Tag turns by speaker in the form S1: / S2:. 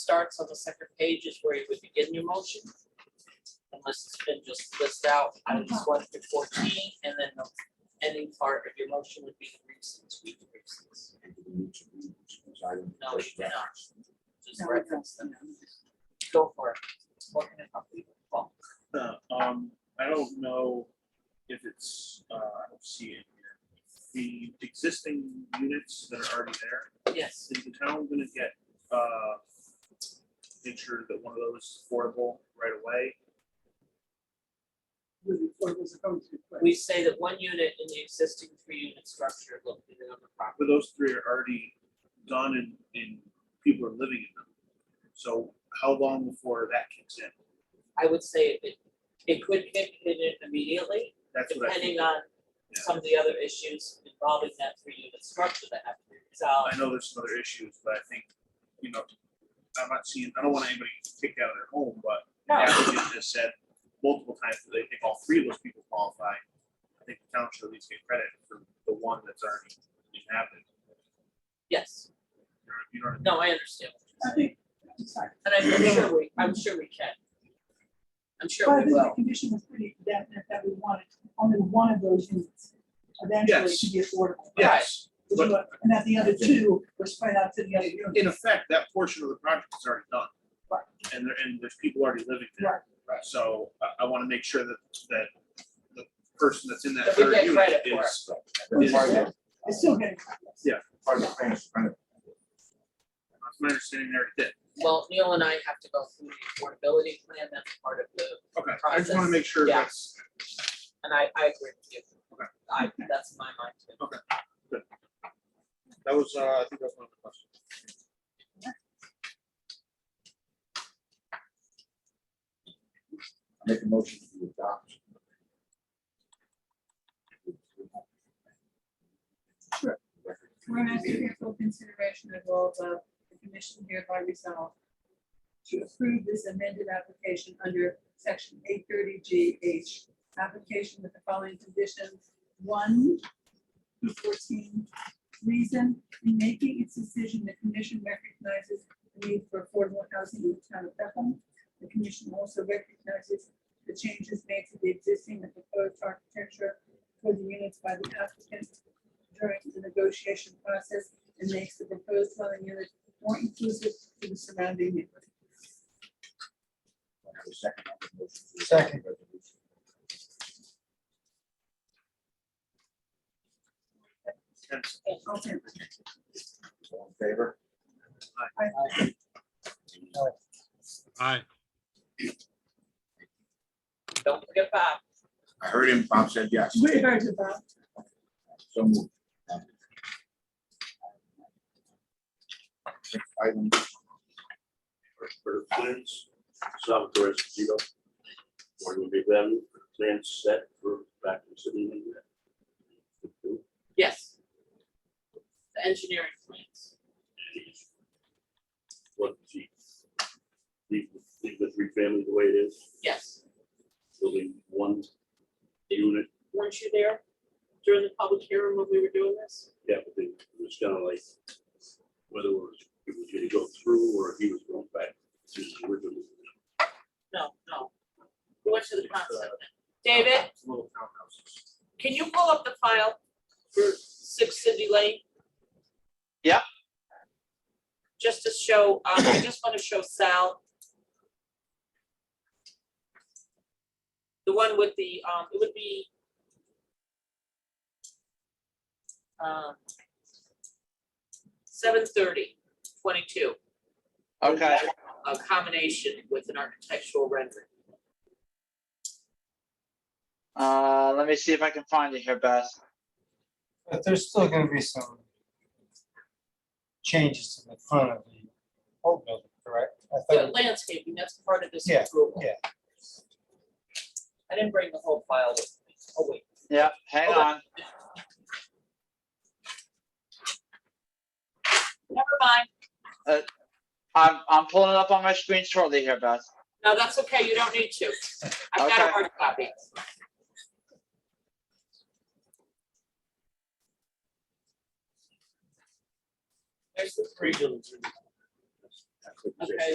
S1: starts on the second page is where you would begin your motion. Unless it's been just listed out, items one through fourteen, and then the ending part of your motion would be the reasons, we the reasons. No, you cannot. Just reference them. Go for it. What can I help you with? Well,
S2: Uh, um, I don't know if it's, uh, I don't see it here. The existing units that are already there,
S1: Yes,
S2: is the town gonna get, uh, make sure that one of those is affordable right away?
S1: we say that one unit in the existing three-unit structure located on the property.
S2: But those three are already done and, and people are living in them. So how long before that kicks in?
S1: I would say it, it could kick it in immediately,
S2: That's what I think.
S1: depending on
S2: Yeah.
S1: some of the other issues involving that three-unit structure that have to be
S2: I
S1: resolved.
S2: know there's some other issues, but I think, you know, I'm not seeing, I don't want anybody kicked out of their home, but the
S1: No.
S2: applicant has said multiple times that they think all three of those people qualify. I think the town should at least get credit for the one that's already inhabited.
S1: Yes,
S2: You know, you know, what
S1: no, I understand.
S3: I think, I'm sorry,
S1: And I'm sure we, I'm sure we can. I'm sure
S3: but
S1: we
S3: the
S1: will.
S3: condition was pretty definite that we wanted only one of those units eventually
S2: Yes.
S3: to be affordable.
S2: I mean? yes,
S3: Which
S2: but-
S3: was- And that the other two were spread out to the other units.
S2: in effect, that portion of the project is already done.
S3: Right.
S2: And there, and there's people already living there. So I, I wanna make sure that, that the person that's in that
S1: That we
S2: third
S1: get
S2: unit
S1: credit for
S2: is,
S4: That's part of
S2: is
S4: the-
S3: It's still getting. progress.
S4: part of the finish, kind of.
S2: That's my understanding there, it did.
S1: Well, Neil and I have to go through the affordability plan, that's part of the,
S2: Okay, I just wanna
S1: Process.
S2: make sure that's,
S1: and I, I agree with you.
S2: Okay.
S1: I, that's my mind too.
S2: that was, uh, I think that was one of the questions.
S4: Make a motion to adopt.
S3: Sure. Whereas the careful consideration of all the, the commission hereby resolved to approve this amended application under section eight thirty G H, application with the following conditions. One, through fourteen, reason, in making its decision, the commission recognizes the need for affordable housing in the town of Bethel. The commission also recognizes the changes made to the existing and proposed architecture for the units by the applicant during the negotiation process and makes the proposed dwelling unit more inclusive to the surrounding neighborhood.
S4: Second.
S2: Yes.
S3: Okay,
S4: All in favor?
S5: Aye.
S1: Don't forget Bob.
S4: I heard him, Bob said yes.
S3: we're very good, Bob.
S4: So moved. Next Item.
S6: for plans, Salvatore Esposito. One will be them, plans set for back in city.
S1: Yes. The engineering plans.
S6: What she, leave, leave the three family the way it is,
S1: Yes.
S6: building one unit,
S1: Weren't you there during the public hearing when we were doing this?
S6: yeah, but they, it was kind of like whether it was, it was gonna go through or he was going back to his original.
S1: No, no. We went to the concept. David,
S2: Little townhouses.
S1: can you pull up the file for Six City Lane?
S7: Yeah.
S1: Just to show, um, I just want to show Sal. The one with the, um, it would be. Um. Seven thirty, twenty-two,
S7: Okay,
S1: a combination with an architectural rendering.
S7: uh, let me see if I can find it here, Beth.
S8: But there's still gonna be some changes to the front of the old building, correct? I
S1: The
S8: thought,
S1: landscaping, that's part of this
S8: Yeah,
S1: approval.
S8: yeah.
S1: I didn't bring the whole file with me. Oh, wait.
S7: Yeah, hang
S1: Okay.
S7: on.
S1: Never mind.
S7: I'm, I'm pulling it up on my screen shortly here, Beth.
S1: No, that's okay. You don't need to. I've got a
S7: Okay.
S1: hard copy. There's the three.
S6: Original.
S1: Okay.